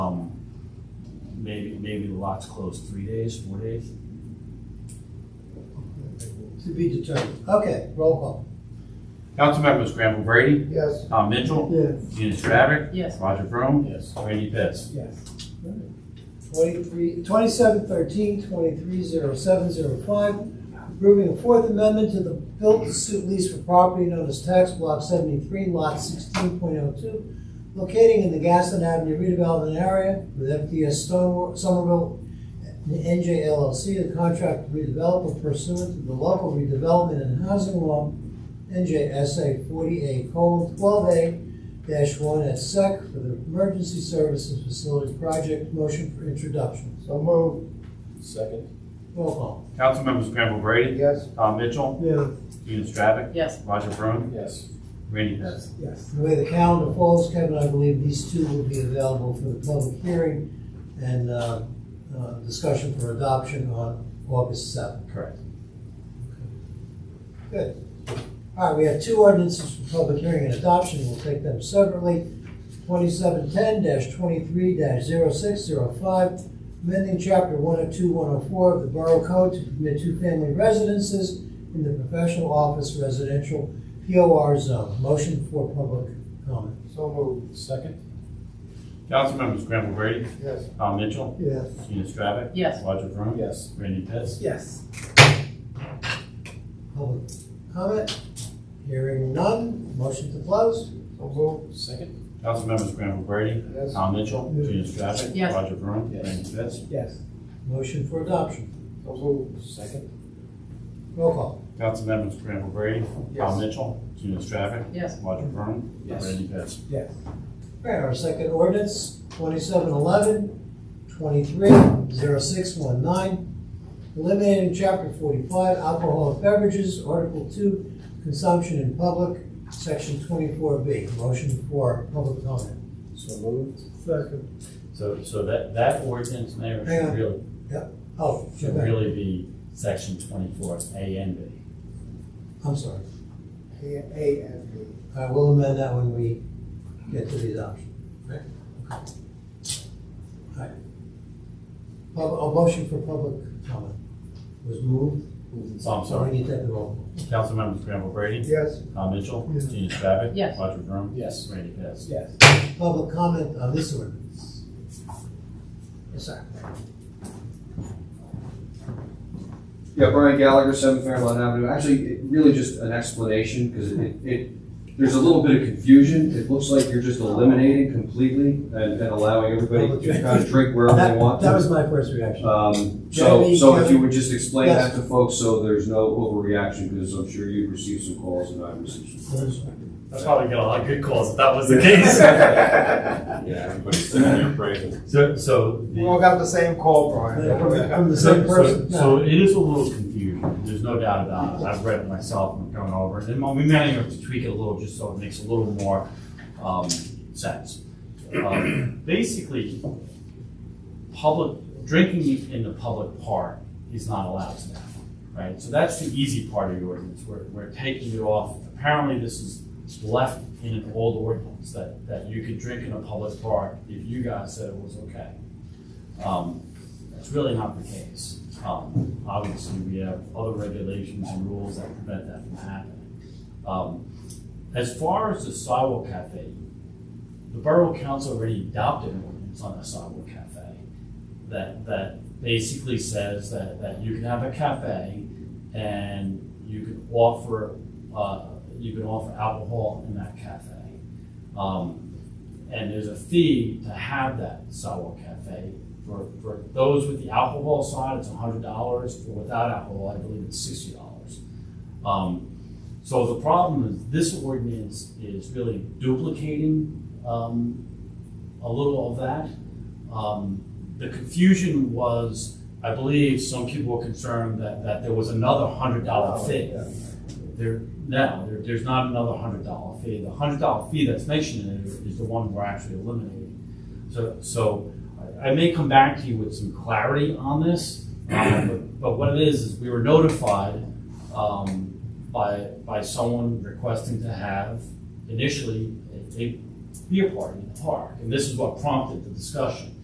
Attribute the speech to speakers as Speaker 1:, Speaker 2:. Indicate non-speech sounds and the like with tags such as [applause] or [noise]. Speaker 1: and Um, maybe the lot's closed three days, four days.
Speaker 2: To be determined. Okay, roll call.
Speaker 3: Council members Granville Brady,
Speaker 2: Yes.
Speaker 3: Tom Mitchell,
Speaker 2: Yes.
Speaker 3: Gina Stravic,
Speaker 4: Yes.
Speaker 3: Roger Vroom,
Speaker 1: Yes.
Speaker 3: Randy Pitts.
Speaker 2: Yes. Twenty-three, twenty-seven thirteen, twenty-three zero seven zero five, approving the Fourth Amendment to the built-to-suit lease for property known as tax block seventy-three, lot sixteen point oh two, locating in the Gaston Avenue redevelopment area with FDS Stone- Somerville and NJ LLC, the contract redevelopment pursuant to the local redevelopment and housing law, NJSA forty A colon twelve A dash one at SEC for the Emergency Services Facility Project. Motion for introduction.
Speaker 5: So moved.
Speaker 1: Second.
Speaker 2: Roll call.
Speaker 3: Council members Granville Brady,
Speaker 5: Yes.
Speaker 3: Tom Mitchell,
Speaker 2: Yeah.
Speaker 3: Gina Stravic,
Speaker 4: Yes.
Speaker 3: Roger Vroom,
Speaker 1: Yes.
Speaker 3: Randy Pitts.
Speaker 2: Yes. The way the calendar falls, Kevin, I believe these two will be available for the public hearing and uh, uh, discussion for adoption on August seventh.
Speaker 3: Correct.
Speaker 2: Good. All right, we have two ordinances for public hearing and adoption. We'll take them separately. Twenty-seven ten twenty-three 605 amending chapter one oh two, one oh four of the Borough Code to permit two-family residences in the professional office residential POR zone. Motion for public comment.
Speaker 5: So moved.
Speaker 1: Second.
Speaker 3: Council members Granville Brady,
Speaker 5: Yes.
Speaker 3: Tom Mitchell,
Speaker 2: Yes.
Speaker 3: Gina Stravic,
Speaker 4: Yes.
Speaker 3: Roger Vroom,
Speaker 1: Yes.
Speaker 3: Randy Pitts.
Speaker 2: Yes. Public comment? Hearing none. Motion to close?
Speaker 5: So moved.
Speaker 1: Second.
Speaker 3: Council members Granville Brady,
Speaker 5: Yes.
Speaker 3: Tom Mitchell, Gina Stravic,
Speaker 4: Yes.
Speaker 3: Roger Vroom,
Speaker 1: Yes.
Speaker 3: Randy Pitts.
Speaker 2: Yes. Motion for adoption.
Speaker 5: So moved.
Speaker 1: Second.
Speaker 2: Roll call.
Speaker 3: Council members Granville Brady, Tom
Speaker 5: Yes.
Speaker 3: Mitchell, Gina Stravic,
Speaker 4: Yes.
Speaker 3: Roger Vroom,
Speaker 1: Yes.
Speaker 3: Randy Pitts.
Speaker 2: Yes. All right, our second ordinance, 2711, 230619, eliminating Chapter 45, alcoholic beverages, Article 2, consumption in public, Section 24B. Motion for public comment.
Speaker 1: So moved.
Speaker 2: Second.
Speaker 3: So, so that, that ordinance, Mayor,
Speaker 2: Hang on.
Speaker 3: should really,
Speaker 2: Oh,
Speaker 3: should
Speaker 2: okay.
Speaker 3: really be section twenty-four, A and B.
Speaker 2: I'm sorry.
Speaker 5: A A and B.
Speaker 2: I will amend that when we get to the adoption. Okay. All right. Pub- A motion for public comment was moved,
Speaker 3: So I'm
Speaker 2: so we
Speaker 3: sorry,
Speaker 2: need to take the roll call.
Speaker 3: Councilmembers Granville Brady,
Speaker 5: Yes.
Speaker 3: Tom Mitchell,
Speaker 2: Yes.
Speaker 3: Gina Stravic.
Speaker 4: Yes.
Speaker 3: Roger Vroom,
Speaker 1: Yes.
Speaker 3: Randy Pitts.
Speaker 5: Yes. [laughs]
Speaker 2: public comment on this ordinance? Yes, sir.
Speaker 6: Yeah, Brian Gallagher, Seven Fairlawn Avenue. Actually, it really just an explanation, because it, it, there's a little bit of confusion. It looks like you're just eliminating completely and, and allowing everybody to kind of drink wherever they
Speaker 2: That,
Speaker 6: want
Speaker 2: that was
Speaker 6: to.
Speaker 2: my first reaction.
Speaker 3: Uh,
Speaker 6: Um, so,
Speaker 2: Jeremy,
Speaker 6: so if you
Speaker 2: Kevin?
Speaker 6: would just explain
Speaker 2: Yes.
Speaker 6: that to folks, so there's no overreaction, because I'm sure you've received some calls and I've received some calls.
Speaker 7: I'd probably get a lot of good calls if that was the case.
Speaker 6: Yeah.
Speaker 8: everybody's sitting there praising.
Speaker 3: [laughs] So, so. the-
Speaker 5: We all got the same call,
Speaker 2: From
Speaker 5: Brian.
Speaker 2: the
Speaker 5: [laughs]
Speaker 2: from the
Speaker 3: So,
Speaker 2: same
Speaker 3: so,
Speaker 2: person?
Speaker 3: so it is a little confusing, there's no doubt about it, I've read it myself and gone over it, and we may have to tweak it a little, just so it makes a little more, um, sense. Um, Basically, public, drinking in the public park is not allowed now, right? So that's the easy part of the ordinance, we're, we're taking it off, apparently this is left in an old ordinance, that, that you could drink in a public park if you guys said it was okay. Um, that's really not the case. Um, obviously, we have other regulations and rules that prevent that from happening. Um, as far as the sidewalk cafe, the borough council already adopted an ordinance on the sidewalk cafe that, that basically says that, that you can have a cafe and you can offer, uh, you can offer alcohol in that cafe. Um, and there's a fee to have that sidewalk cafe. For, for those with the alcohol side, it's hundred dollars, for without alcohol, I believe it's sixty dollars. Um, so the problem is, this ordinance is really duplicating, um, a little of that. Um, the confusion was, I believe, some people were concerned that, that there was another hundred
Speaker 5: Oh.
Speaker 3: dollar fee. There, no, there, there's not another hundred dollar fee. The hundred dollar fee that's mentioned in it is the one we're actually eliminating. So, so I I may come back to you with some clarity on this, uh, but, but what it is, is we were notified, um, by, by someone requesting to have initially a, a beer party in the park, and this is what prompted the discussion.